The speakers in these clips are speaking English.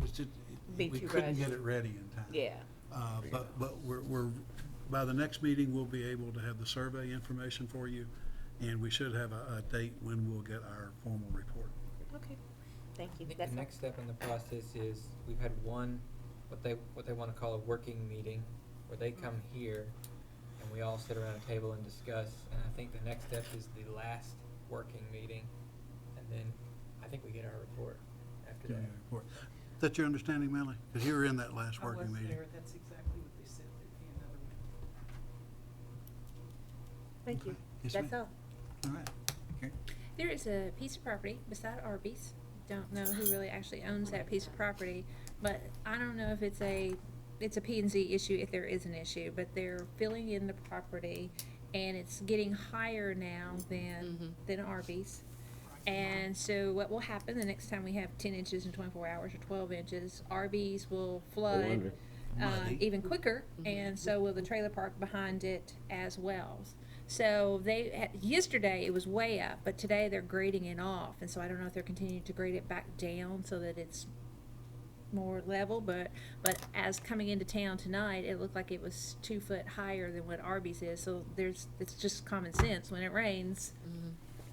was just, Be we too couldn't get rushed. it ready in time. Yeah, Uh, But, but we're, we're, by the next meeting, we'll be able to have the survey information for you, and we should have a, a date when we'll get our formal report. okay, thank you. The- That's The all. next step in the process is, we've had one, what they, what they wanna call a working meeting, where they come Mm-hmm. here, and we all sit around a table and discuss, and I think the next step is the last working meeting, and then I think we get our report after that. Community report. Is that your understanding, Melanie? Because you were in that last I was working meeting. there, that's exactly what they said, there'd be another one. Thank you. Okay. Yes, That's ma'am. all. All right. Okay. There is a piece of property beside Arby's. Don't know who really actually owns that piece of property, but I don't know if it's a, it's a P and Z issue, if there is an issue, but they're filling in the property and it's getting higher now than, than Arby's. And so what will happen the next time we have ten inches in twenty-four hours or twelve inches, Arby's will flood under. um, Muddy. even quicker, Mm-hmm. and so will the trailer park behind it as well. So they, had- yesterday it was way up, but today they're grading it off, and so I don't know if they're continuing to grade it back down so that it's more level, but, but as coming into town tonight, it looked like it was two foot higher than what Arby's is, so there's, it's just common sense, when it rains,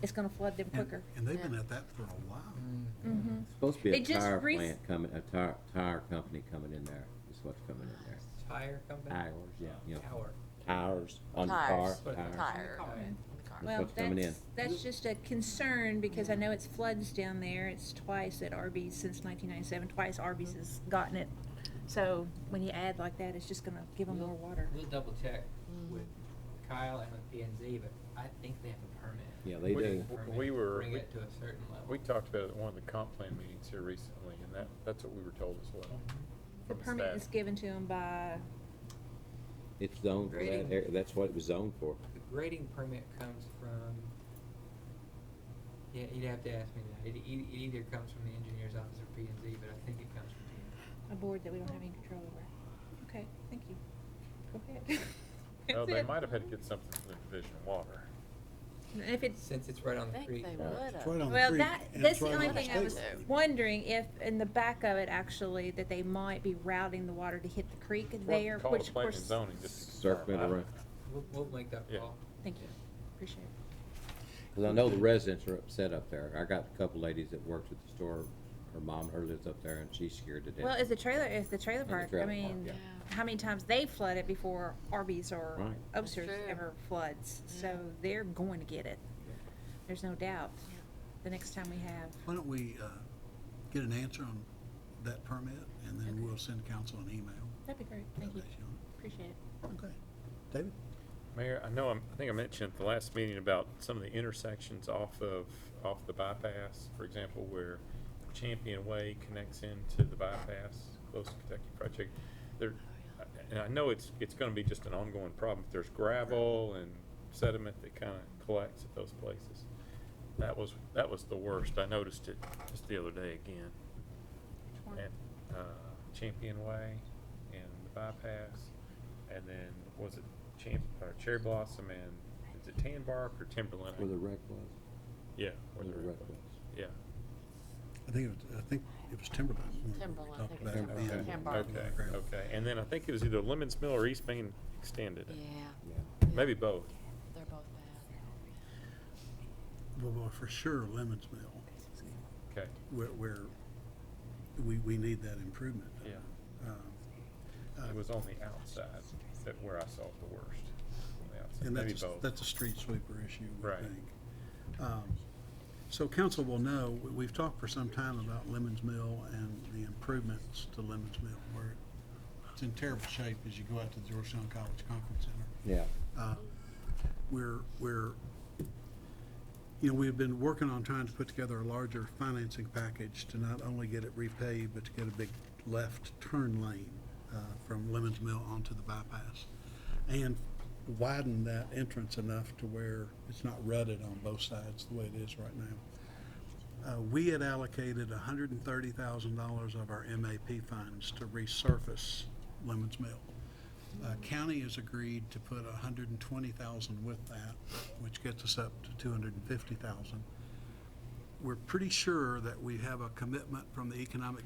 it's gonna flood them Mm-hmm. And- quicker. And they've been at that for a while. Mm. Mm-hmm. Supposed to be They a just tire rec- plant coming, a tire, tire company coming in there, is what's coming in there. Tire company? Tires, yeah, you know, Tower. tires on the car, Tires, tire. tires. That's Well, what's coming in. that's, that's just a concern, because I know it's floods down there, it's twice at Arby's since nineteen ninety-seven, twice Arby's has gotten it. So, when you add like that, it's just gonna give them more water. Mm. We'll double check with Kyle and with P and Z, but I think they have a permit. Yeah, they We- do. Permit We to were- Bring we- it to a certain level. We talked about it at one of the comp plan meetings here recently, and that, that's what we were told as well. The Mm-hmm. from permit staff. is given to them by, It's zoned for that Grading. area, that's what it was zoned for. The grading permit comes from, yeah, you'd have to ask me that. It, e- it either comes from the engineer's office or P and Z, but I think it comes from P and Z. a board that we don't have any control over. Okay, thank you. Go ahead. No, That's Oh, they it. might have had to get something from the Division of Water. And If it's, Since it's right on I the think creek. they Yeah. would It's have. right on the well, creek, that, and that's it's the right only on the thing I state was road. wondering, if in the back of it actually, that they might be routing the water to hit the creek there, Call which it of planning course. and zoning, just. to confirm. Circling around, We'll, we'll make that Yeah. call. Thank you, appreciate it. cause I know the residents are upset up there. I got a couple ladies that works at the store, her mom, her lives up there and she's scared to death. Well, if the trailer, if the trailer And the park, I trailer park, mean, yeah. how many times they flood it before Arby's or Right. That's Upsers true. Mm. ever floods, so they're going to get it. There's no doubt, the next time we have. Why don't we uh, get an answer on that permit, and then we'll send council an email. That'd be great, update on appreciate it. it. Okay. David? Mayor, I know, I'm- I think I mentioned at the last meeting about some of the intersections off of, off the bypass. For example, where Champion Way connects into the bypass, close to Kentucky Fried Chicken. There, and I know it's, it's gonna be just an ongoing problem. There's gravel and sediment that kind of collects at those places. That was, that was the worst. I noticed it just the other day again. At, uh, Champion Way and the bypass, and then was it Champ, or Cherry Blossom and, is it Tan Bark or Timberline? Where the wreck was, Yeah. where the wreck was. Yeah. I think, it was- I think it was Timberline. when we Timberline, I talked think about it's it Timberline. being- Tan Bark. Okay, okay. And then I think it was either Lemons Mill or East Main Extended. Yeah, Yeah. Maybe both. they're both bad. Well, well, for sure, Lemons Mill, Okay, where, where we, we need that improvement. yeah. Um, uh, It was on the outside that where I saw it the worst. On the outside. And Maybe that's, a- both. that's a street sweeper issue, we Right. think. Um, So council will know, we- we've talked for some time about Lemons Mill and the improvements to Lemons Mill, where it's in terrible shape as you go out to the Georgetown College Conference Center. Yeah, Uh, We're, we're, you know, we've been working on trying to put together a larger financing package to not only get it repaved, but to get a big left turn lane uh, from Lemons Mill onto the bypass. And widen that entrance enough to where it's not rutted on both sides the way it is right now. Uh, We had allocated hundred and thirty thousand dollars of our MAP funds to resurface Lemons Mill. Uh, County has agreed to put a hundred and twenty thousand with that, which gets us up to two hundred and fifty thousand. We're pretty sure that we have a commitment from the Economic